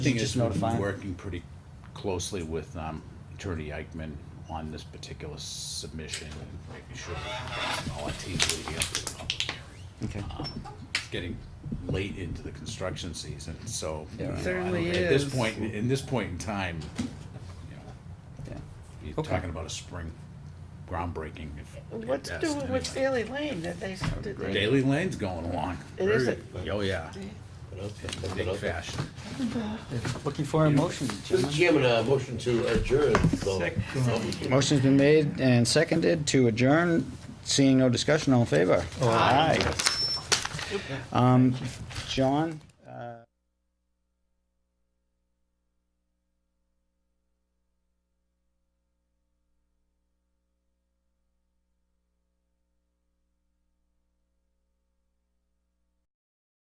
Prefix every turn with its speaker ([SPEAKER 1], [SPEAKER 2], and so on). [SPEAKER 1] Thing
[SPEAKER 2] Just
[SPEAKER 1] is, we've
[SPEAKER 2] notify
[SPEAKER 1] been
[SPEAKER 2] 'em.
[SPEAKER 1] working pretty closely with um, Attorney Eichman on this particular submission, making sure that all our teams leading up to the public hearing.
[SPEAKER 2] Okay,
[SPEAKER 1] It's getting late into the construction season, so.
[SPEAKER 2] Yeah.
[SPEAKER 1] you know, I don't-
[SPEAKER 3] Certainly
[SPEAKER 1] At this
[SPEAKER 3] is.
[SPEAKER 1] point, in this point in time, you know,
[SPEAKER 2] yeah.
[SPEAKER 1] you're
[SPEAKER 2] Okay.
[SPEAKER 1] talking about a spring groundbreaking. if- at
[SPEAKER 3] What's
[SPEAKER 1] best,
[SPEAKER 3] doing with
[SPEAKER 1] anyway.
[SPEAKER 3] Fairleigh Lane? Did they, did they?
[SPEAKER 1] Daily Lane's going along.
[SPEAKER 3] It
[SPEAKER 1] Very-
[SPEAKER 3] isn't.
[SPEAKER 1] Oh, yeah, in big
[SPEAKER 4] Mr.
[SPEAKER 1] fashion.
[SPEAKER 2] Looking for a motion, gentlemen.
[SPEAKER 4] Chairman, uh, motion to adjourn. so-
[SPEAKER 2] Motion's been made and seconded to adjourn. Seeing no discussion, all in favor? Aye. Um, John?